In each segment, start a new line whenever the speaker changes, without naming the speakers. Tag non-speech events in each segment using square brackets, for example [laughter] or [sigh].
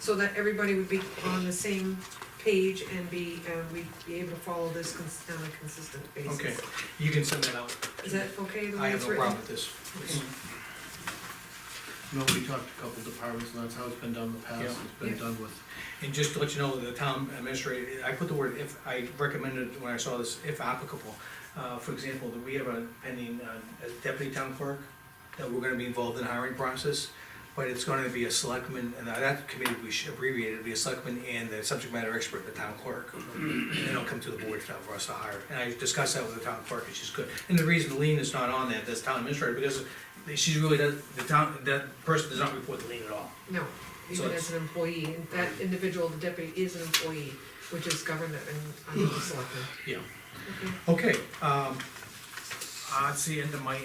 so that everybody would be on the same page and be, uh, we'd be able to follow this cons- on a consistent basis.
Okay, you can send that out.
Is that okay, the
I
way
have
it's
no
written?
problem with this.
Okay.
You know, we talked to a couple departments, and that's how it's been done in the past,
Yeah.
it's been
Yeah.
done with,
And just to let you know, the town administrator, I put the word if, I recommended when I saw this, if applicable. Uh, for example, that we have a pending uh, a deputy town clerk that we're gonna be involved in the hiring process, but it's gonna be a selectman, and that committee we should abbreviate, it'd be a selectman and the subject matter expert, the town clerk. And then it'll come to the board for us to hire, and I discussed that with the town clerk, and she's good. And the reason Lean is not on that, that's town administrator, because she really does, the town, that person does not report to Lean at all.
No,
So
even
it's-
as an employee, and that individual, the deputy, is an employee, which is governed and, under the selectmen.
Yeah.
Okay.
Okay, um, that's the end of my,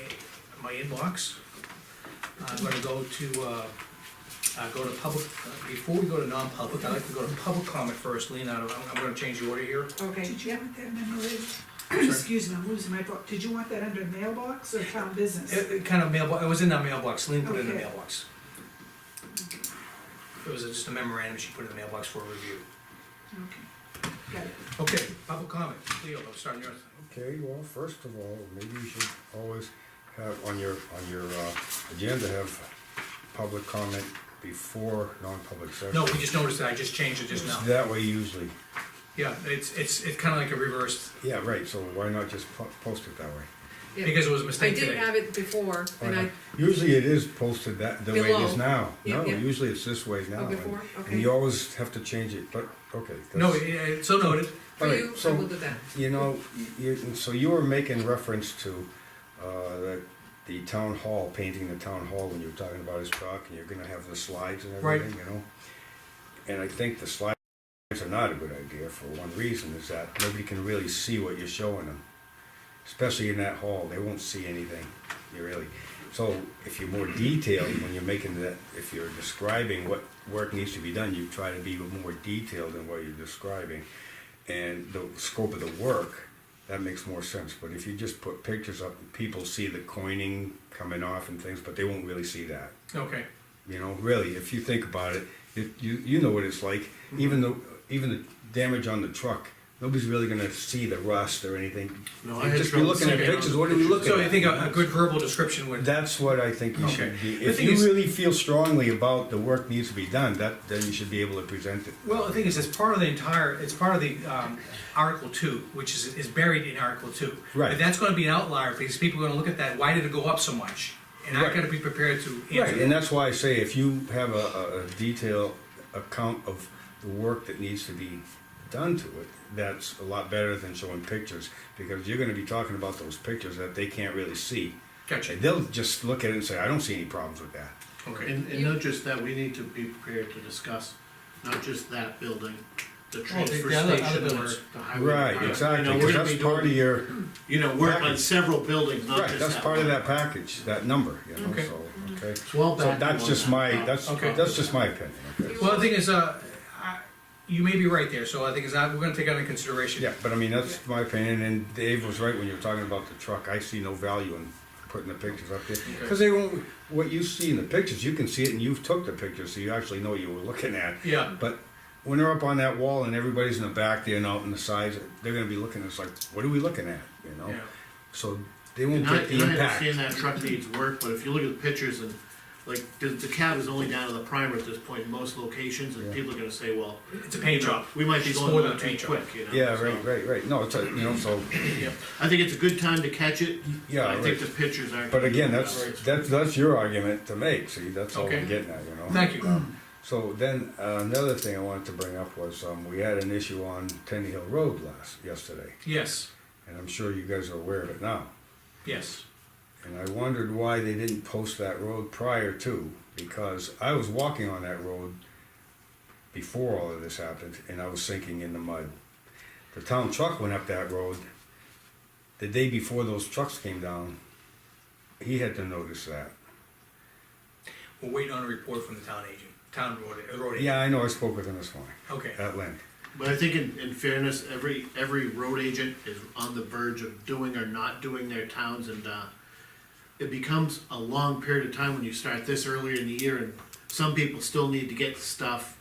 my inbox. I'm gonna go to, uh, uh, go to public, before we go to non-public, I'd like to go to public comment first, Lean, I don't- I'm, I'm gonna change the order here.
Okay,
Hmm. Did you want that
sorry?
under, [clears throat] excuse me, I'm losing my book, did you want that under mailbox or town business?
It, it kind of mailbox, it was in our mailbox, Lean put it in the
Okay.
mailbox. It was just a memorandum she put in the mailbox for review.
Okay, got it.
Okay, public comment, Leo, I'm starting yours.
Okay, well, first of all, maybe you should always have on your, on your, uh, agenda, have public comment before non-public session.
No, we just noticed that, I just changed it just
It's
now.
That way usually,
Yeah, it's, it's, it's kind of like a reverse,
yeah, right, so why not just po- post it that way?
yeah.
because it was a
I
mistake
did
today.
have it before, and I,
Usually it is posted that, the way it
Below.
is now,
Yeah,
no,
yeah.
usually it's this way now.
oh,
and-
before,
And
okay.
you always have to change it, but, okay.
No,
that's-
it- it- so noted.
For
all right,
you, I
so-
will do that.
You know, you, so you were making reference to, uh, the, the town hall, painting the town hall when you were talking about his truck, and you're gonna have the slides and
Right.
everything, you know? And I think the slides are not a good idea for one reason, is that nobody can really see what you're showing them. Especially in that hall, they won't see anything, you really. So if you're more detailed when you're making that, if you're describing what work needs to be done, you try to be more detailed in what you're describing and the scope of the work, that makes more sense. But if you just put pictures up, people see the coining coming off and things, but they won't really see that.
Okay,
You know, really, if you think about it, you you, you know what it's like.
Mm-hmm.
Even though even the damage on the truck, nobody's really gonna see the rust or anything.
no, I
You'd
had
just be
trouble
looking at
seeing it on
pictures,
the
what are we looking
so you
at?
think a, a good verbal description would,
That's what I think you
Okay.
should be.
The
If
thing
you
is-
really feel strongly about the work needs to be done, that then you should be able to present it.
well, the thing is, it's part of the entire, it's part of the, um, Article Two, which is, is buried in Article Two.
Right.
But that's gonna be an outlier, because people are gonna look at that, why did it go up so much? And I
Right.
gotta be prepared to
Right, and
answer.
that's why I say if you have a, a, a detailed account of the work that needs to be done to it, that's a lot better than showing pictures, because you're gonna be talking about those pictures that they can't really see.
Gotcha,
And they'll just look at it and say, I don't see any problems with that.
okay,
And, and not just that, we need to be prepared to discuss, not just that building, the transfer
the other- other
station or
buildings.
the highway.
Right,
department.
exactly,
You know,
'cause
we're gonna
that's
be
part of
doing-
your,
You know, work on
package.
several buildings, not
right,
just that.
that's part of
one.
that package, that number, you know,
Okay.
so, okay?
It's well
So
back.
that's
on
just
that.
my, that's,
Okay.
that's just my opinion, okay?
well, the thing is, uh, I, you may be right there, so I think is, I, we're gonna take that into consideration.
Yeah, but I mean, that's my opinion, and Dave was right when you were talking about the truck, I see no value in putting the pictures up there. Cause they won't, what you see in the pictures, you can see it and you've took the pictures, so you actually know what you were looking at.
Yeah,
But when they're up on that wall and everybody's in the back there and out in the sides, they're gonna be looking, it's like, what are we looking at, you know?
yeah,
So they
And
won't
I,
get the
and I
impact.
understand that truck needs work, but if you look at the pictures and, like, the, the cab is only down to the primer at this point in most locations, and
Yeah.
people are gonna say, well,
it's a paint job.
we might be
It's more
going
than
on
a
too
paint job.
quick, you know?
Yeah,
so.
right, right, right, no, it's a, you know, so,
Yeah,
I think it's a good time to catch it.
yeah,
I think
right.
the pictures aren't.
But again, that's, that's, that's your argument to make, see, that's all
Okay.
I'm getting at, you know?
thank you,
So then, uh, another thing I wanted to bring up was, um, we had an issue on Tenny Hill Road last, yesterday,
yes,
and I'm sure you guys are aware of it now.
yes,
And I wondered why they didn't post that road prior to, because I was walking on that road before all of this happened, and I was sinking in the mud. The town truck went up that road the day before those trucks came down. He had to notice that.
we're waiting on a report from the town agent, town road, road agent,
Yeah, I know, I spoke with him this morning,
okay.
at length.
But I think in, in fairness, every, every road agent is on the verge of doing or not doing their towns and, uh, it becomes a long period of time when you start this earlier in the year and some people still need to get stuff